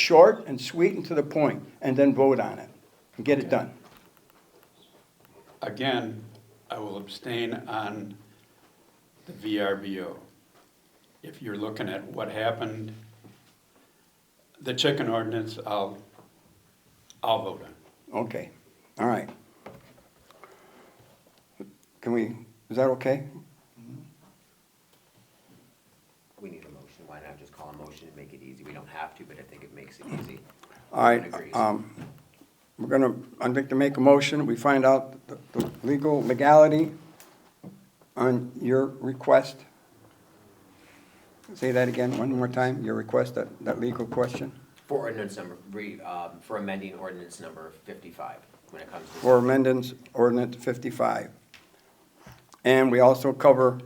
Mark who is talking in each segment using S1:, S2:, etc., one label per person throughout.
S1: short and sweet and to the point, and then vote on it, and get it done.
S2: Again, I will abstain on the VRBO. If you're looking at what happened, the chicken ordinance, I'll, I'll vote on.
S1: Okay, all right. Can we, is that okay?
S3: We need a motion, why not just call a motion to make it easy? We don't have to, but I think it makes it easy.
S1: All right,
S3: Everyone agrees.
S1: um, we're gonna, I'd like to make a motion, we find out the the legal legality on your request. Say that again, one more time, your request, that, that legal question,
S3: For ordinance number, re, um, for amending ordinance number fifty-five, when it comes to.
S1: for amendments ordinance fifty-five. And we also cover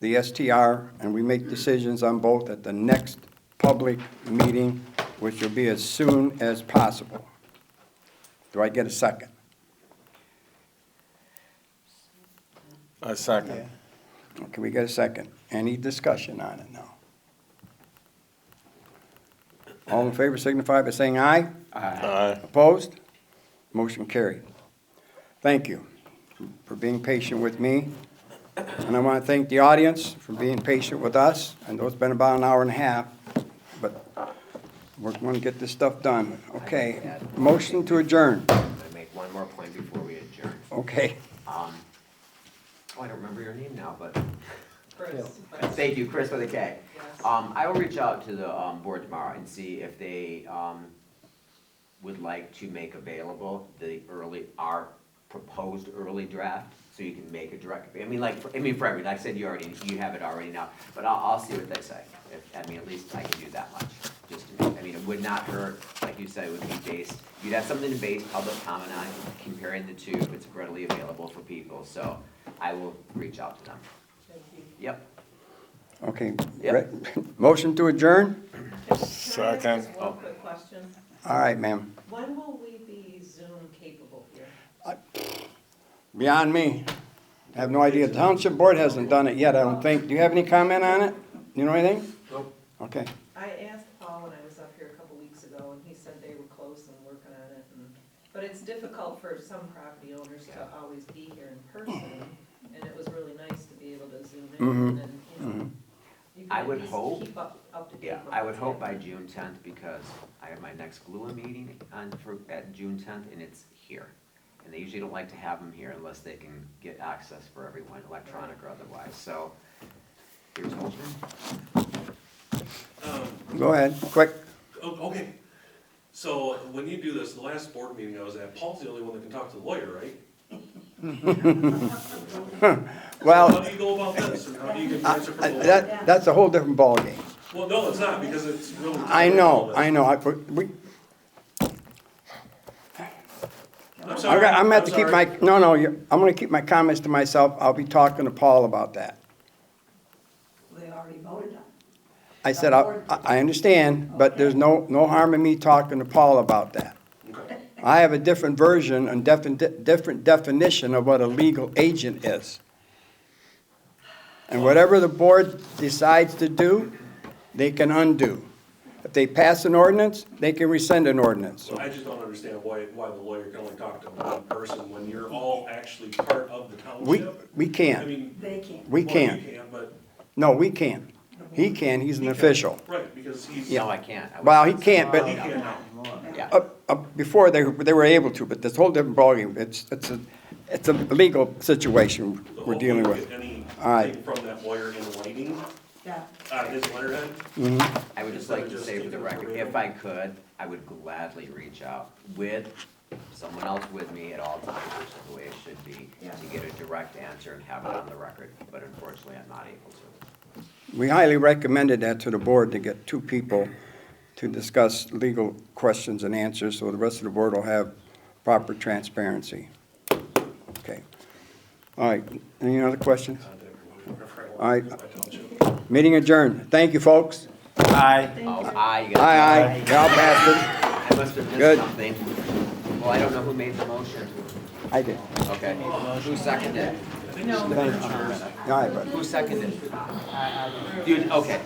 S1: the STR, and we make decisions on both at the next public meeting, which will be as soon as possible. Do I get a second?
S4: A second.
S1: Can we get a second? Any discussion on it now? All in favor signify by saying aye.
S4: Aye.
S1: Opposed? Motion carried. Thank you for being patient with me. And I want to thank the audience for being patient with us. I know it's been about an hour and a half, but we're going to get this stuff done. Okay, motion to adjourn.
S3: I'm gonna make one more point before we adjourn.
S1: Okay.
S3: Oh, I don't remember your name now, but. Thank you, Chris with a K. Um, I will reach out to the, um, board tomorrow and see if they, um, would like to make available the early, our proposed early draft, so you can make a direct, I mean, like, for- I mean, for every, like I said, you already, you have it already now, but I'll, I'll see what they say. If, I mean, at least I can do that much, just, to- I mean, it would not hurt, like you said, it would be based, you'd have something to base public comment on, comparing the two, if it's readily available for people, so I will reach out to them. Yep,
S1: Okay.
S3: Yep.
S1: Re- Motion to adjourn?
S4: Second.
S5: Can I ask
S3: Oh.
S5: one quick question?
S1: All right, ma'am.
S5: When will we be Zoom capable here?
S1: Beyond me. I have no idea. The Township board hasn't done it yet, I don't think. Do you have any comment on it? You know anything?
S3: Nope.
S1: Okay.
S5: I asked Paul when I was up here a couple weeks ago, and he said they were close and working on it, and, but it's difficult for some property owners to always be here in person, and it was really nice to be able to Zoom in and, then, you know. you can
S3: I
S5: at
S3: would
S5: least
S3: hope-
S5: Keep up, up to date.
S3: yeah,
S5: with
S3: I would
S5: what's
S3: hope by
S5: happening.
S3: June tenth, because I have my next GLUA meeting on, for, at June tenth, and it's here. And they usually don't like to have them here unless they can get access for everyone, electronic or otherwise, so here's hoping.
S1: Go ahead, quick.
S6: Oh, okay. So when you do this, the last board meeting I was at, Paul's the only one that can talk to the lawyer, right? How
S1: Well,
S6: do you go about this, and how do you get the
S1: I-
S6: answer from
S1: Uh, I-
S6: the lawyer?
S1: that, that's a whole different ballgame.
S6: Well, no, it's not, because it's really.
S1: I know, I know, I, we,
S6: I'm
S1: I'm
S6: sorry.
S1: gonna, I'm gonna have to
S6: I'm
S1: keep my,
S6: sorry.
S1: no, no, you- I'm gonna keep my comments to myself. I'll be talking to Paul about that.
S7: They already voted on it.
S1: I said, I, I understand, but there's no, no harm in me talking to Paul about that.
S6: Okay.
S1: I have a different version and defi- different definition of what a legal agent is. And whatever the board decides to do, they can undo. If they pass an ordinance, they can rescind an ordinance.
S6: I just don't understand why, why the lawyer can only talk to one person when you're all actually part of the
S1: We,
S6: township.
S1: we
S6: I
S1: can't.
S6: mean.
S7: They can't.
S1: We
S6: well,
S1: can't.
S6: You can, but,
S1: No, we can't. He can, he's an official.
S6: right, because he's.
S3: No, I can't. I
S1: Well, he
S3: wouldn't-
S1: can't,
S6: He
S1: but
S6: can't now.
S3: Yeah.
S1: up, up, before they, they were able to, but this whole different ballgame. It's, it's a, it's a legal situation
S6: So
S1: we're
S6: hopefully
S1: dealing
S6: we
S1: with.
S6: get
S1: All right.
S6: Anything from that lawyer in writing,
S7: Yeah.
S6: on his letterhead,
S3: I would just like to say for the record, if I could, I would gladly reach out with someone else with me at all times, which is the way it should be, to get a direct answer and have it on the record, but unfortunately, I'm not able to.
S1: We highly recommended that to the board to get two people to discuss legal questions and answers, so the rest of the board will have proper transparency. Okay. All right, any other questions?
S6: contact him whenever I want.
S1: All right,
S6: My township.
S1: meeting adjourned. Thank you, folks.
S3: Oh, aye, you
S1: Aye,
S3: gotta-
S1: aye, y'all passed
S3: I must have
S1: Good.
S3: missed something. Well, I don't know who made the motion.
S1: it. I did.
S3: Okay, who seconded? it?
S1: Thank you. All right, bud.
S3: Who seconded? it? Dude, okay.